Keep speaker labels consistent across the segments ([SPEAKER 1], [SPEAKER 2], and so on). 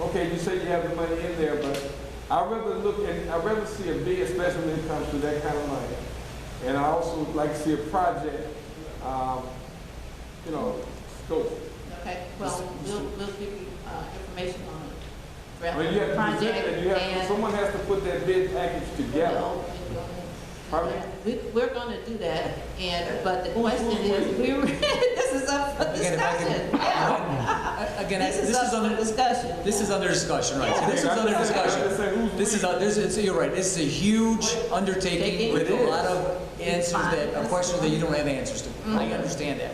[SPEAKER 1] okay, you say you have the money in there, but I'd rather look at, I'd rather see a bid, especially when it comes to that kind of money. And I also would like to see a project, um, you know, scope.
[SPEAKER 2] Okay, well, we'll, we'll give you, uh, information on it.
[SPEAKER 1] I mean, you have to present that, you have, someone has to put that bid package together. Pardon me?
[SPEAKER 2] We, we're gonna do that, and, but the question is, we, were- this is up for
[SPEAKER 3] Again, if I can-
[SPEAKER 2] discussion. Yeah.
[SPEAKER 3] Again,
[SPEAKER 2] This is up for
[SPEAKER 3] under
[SPEAKER 2] discussion.
[SPEAKER 3] This is under discussion, right? So This is
[SPEAKER 1] Yeah.
[SPEAKER 3] under
[SPEAKER 1] It's like, who's
[SPEAKER 3] discussion. This is,
[SPEAKER 1] we?
[SPEAKER 3] a- this is, you're right, this is a huge undertaking
[SPEAKER 2] Taking.
[SPEAKER 3] with a
[SPEAKER 1] It
[SPEAKER 3] lot
[SPEAKER 1] is.
[SPEAKER 3] of answers that, are questions that you don't have answers to. I understand that.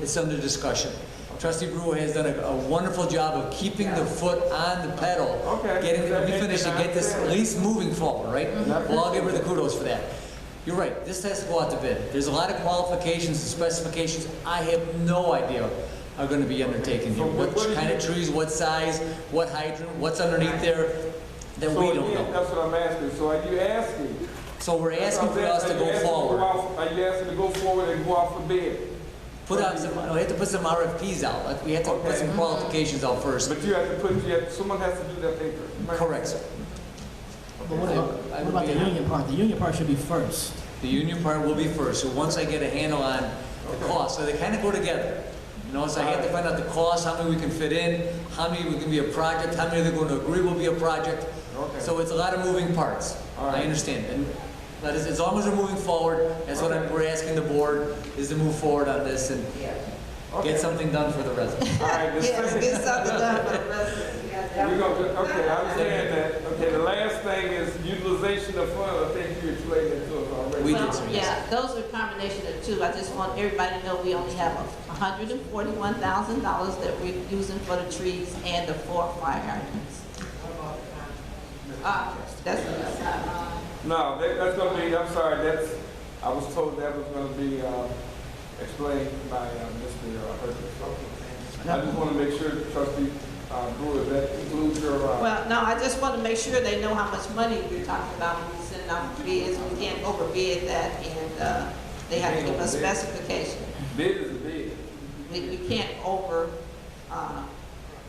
[SPEAKER 3] It's under discussion. Trustee Brewer has done a- a wonderful job of keeping the foot on the pedal.
[SPEAKER 1] Okay.
[SPEAKER 3] Getting, let me finish and get this at least moving forward, right?
[SPEAKER 1] Mhm.
[SPEAKER 3] Well, I'll give her the kudos for that. You're right, this has to go out to bid. There's a lot of qualifications and specifications I have no idea are gonna be undertaken here.
[SPEAKER 1] So what-
[SPEAKER 3] What
[SPEAKER 1] what do
[SPEAKER 3] kind of
[SPEAKER 1] you-
[SPEAKER 3] trees, what size, what hydrant, what's underneath there, that we
[SPEAKER 1] So
[SPEAKER 3] don't
[SPEAKER 1] again,
[SPEAKER 3] know.
[SPEAKER 1] That's what I'm asking, so are you asking?
[SPEAKER 3] So we're asking for
[SPEAKER 1] That's what I'm
[SPEAKER 3] us to
[SPEAKER 1] saying. Are you
[SPEAKER 3] go
[SPEAKER 1] asking
[SPEAKER 3] forward.
[SPEAKER 1] out- Are you asking to go forward and go out for bid?
[SPEAKER 3] Put out some, we have to put some RFPs out, Like, we have to put
[SPEAKER 1] Okay.
[SPEAKER 3] some qualifications out first.
[SPEAKER 1] But you have to put, you have, someone has to do that paper.
[SPEAKER 3] Correct, sir.
[SPEAKER 4] But what about,
[SPEAKER 3] I- I
[SPEAKER 4] what about
[SPEAKER 3] would
[SPEAKER 4] the
[SPEAKER 3] be-
[SPEAKER 4] union part? The union part should be first.
[SPEAKER 3] The union part will be first, so once I get a handle on the cost, so they kind of go together. You know, so I have to find out the cost, how many we can fit in, how many we can be a project, how many they're going to agree will be a project.
[SPEAKER 1] Okay.
[SPEAKER 3] So it's a lot of moving parts.
[SPEAKER 1] All
[SPEAKER 3] I
[SPEAKER 1] right.
[SPEAKER 3] understand, and that is, as long as we're moving forward, that's what I'm, we're asking the board, is to move forward on this and
[SPEAKER 1] Okay.
[SPEAKER 3] get something done for the residents.
[SPEAKER 1] All right, the
[SPEAKER 2] Yeah,
[SPEAKER 1] second,
[SPEAKER 2] get something done for the residents. We got that
[SPEAKER 1] we're
[SPEAKER 2] one.
[SPEAKER 1] gonna, do- okay, I understand that. Okay, the last thing is utilization of funds. I think you explained that to us already.
[SPEAKER 3] We did,
[SPEAKER 2] Well,
[SPEAKER 3] sir, yes.
[SPEAKER 2] Yeah, those are a combination of two. I just want everybody to know we only have hundred and forty-one thousand dollars that we're using for the trees and the four fire hydrants. Uh, that's, uh,
[SPEAKER 1] No, that, that's gonna be, I'm sorry, that's, I was told that was gonna be, uh, explained by, uh, Mr. Hurd. I just wanna make sure, trustee, uh, Brewer, that includes your, uh,
[SPEAKER 2] well, no, I just want to make sure they know how much money we're talking about when we send out bids. We can't overbid that and, uh, they have to give us specification.
[SPEAKER 1] bid is a bid.
[SPEAKER 2] We, we can't over, uh,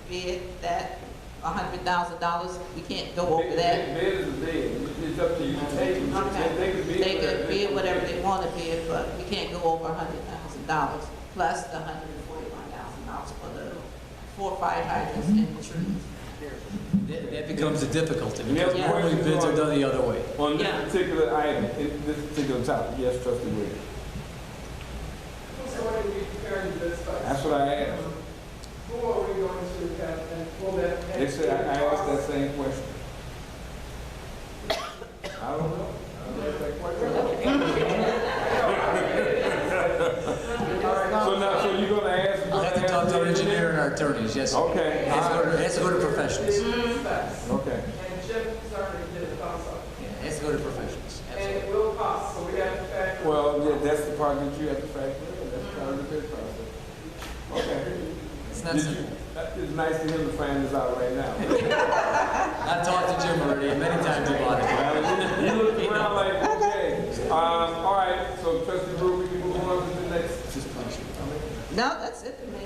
[SPEAKER 2] bid that hundred thousand dollars. We can't go over
[SPEAKER 1] Bid- Bid
[SPEAKER 2] that.
[SPEAKER 1] bid is a bid. It's up to you to take it. They- They could bid.
[SPEAKER 2] They could bid whatever they
[SPEAKER 1] want.
[SPEAKER 2] want to bid, but we can't go over hundred thousand dollars, plus the hundred and forty-one thousand dollars for the four fire hydrants and the trees.
[SPEAKER 3] That that becomes a difficulty,
[SPEAKER 1] And that's
[SPEAKER 3] because normally
[SPEAKER 1] where-
[SPEAKER 3] bids are done the other way.
[SPEAKER 1] On
[SPEAKER 2] Yeah.
[SPEAKER 1] this particular item, in this particular topic, yes, trustee Williams.
[SPEAKER 5] So what are we preparing this for?
[SPEAKER 1] That's what I asked.
[SPEAKER 5] Who are we going to have and pull that?
[SPEAKER 1] They said, I I asked that same question. I don't know. I don't know that question. So now, so you're gonna ask?
[SPEAKER 3] I have to talk to our engineer and our attornees, yes. sir. It
[SPEAKER 1] Okay,
[SPEAKER 3] has to
[SPEAKER 1] all
[SPEAKER 3] go to-
[SPEAKER 1] right,
[SPEAKER 3] it has to go to professionals.
[SPEAKER 5] Specs.
[SPEAKER 1] okay.
[SPEAKER 5] And Chip started to get it also.
[SPEAKER 3] Yeah, It has to go to professionals,
[SPEAKER 5] And
[SPEAKER 3] absolutely.
[SPEAKER 5] it will cost, so we have to factor.
[SPEAKER 1] Well, yeah, that's the part that you have to factor in, that's part of the bid process. Okay.
[SPEAKER 3] It's
[SPEAKER 1] Did
[SPEAKER 3] not
[SPEAKER 1] you-
[SPEAKER 3] simple.
[SPEAKER 1] that- It's nice to him to find this out right now.
[SPEAKER 3] I've talked to Jim already many times about it.
[SPEAKER 1] You look around like, okay, um, all right, so trustee Brew, we can move on to the next.
[SPEAKER 2] No, that's it for me.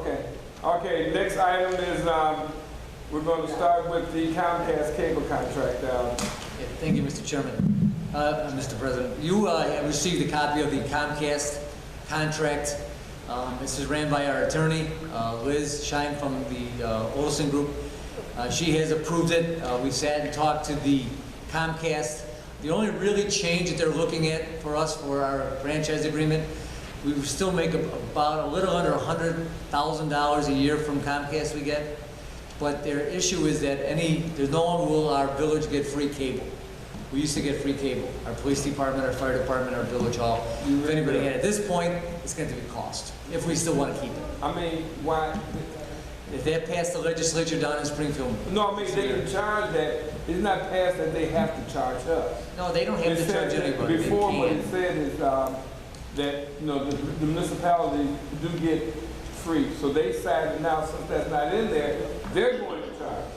[SPEAKER 1] Okay, okay, next item is, um, we're gonna start with the Comcast cable contract, um,
[SPEAKER 3] Yeah, Thank you, Mr. Chairman. Uh, Mr. President, you uh, have received a copy of the Comcast contract. Um, This is ran by our attorney, uh, Liz Shine from the uh, Olson Group. Uh, She has approved it. Uh, We sat and talked to the Comcast. The only really change that they're looking at for us for our franchise agreement, we would still make ab- about a little under $100,000 a year from Comcast we get. But their issue is that any, there's no one will our village get free cable. We used to get free cable, our police department, our fire department, our village hall. If anybody had, at this point, it's going to be cost, if we still want to keep it.
[SPEAKER 1] I mean, why,
[SPEAKER 3] If that passed the legislature down in Springfield,
[SPEAKER 1] no, I mean, they can charge that, it's not passed that they have to charge us.
[SPEAKER 3] no, they don't have
[SPEAKER 1] It
[SPEAKER 3] to charge
[SPEAKER 1] said that
[SPEAKER 3] anybody, they
[SPEAKER 1] Before, what it
[SPEAKER 3] can.
[SPEAKER 1] said is, um, that, you know, the the municipalities do get free, so they decided now, since that's not in there, they're going to charge.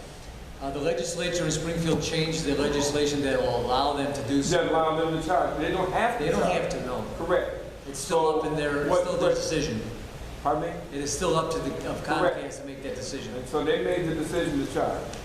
[SPEAKER 3] Uh, The legislature in Springfield changed the legislation that will allow them to do so.
[SPEAKER 1] Just allow them to charge, they don't have to
[SPEAKER 3] They don't
[SPEAKER 1] charge.
[SPEAKER 3] have to, no.
[SPEAKER 1] Correct.
[SPEAKER 3] It's still up in their, it's still their decision.
[SPEAKER 1] Pardon me?
[SPEAKER 3] It is still up to the, of
[SPEAKER 1] Correct.
[SPEAKER 3] Comcast to make that decision.
[SPEAKER 1] And so they made the decision to charge.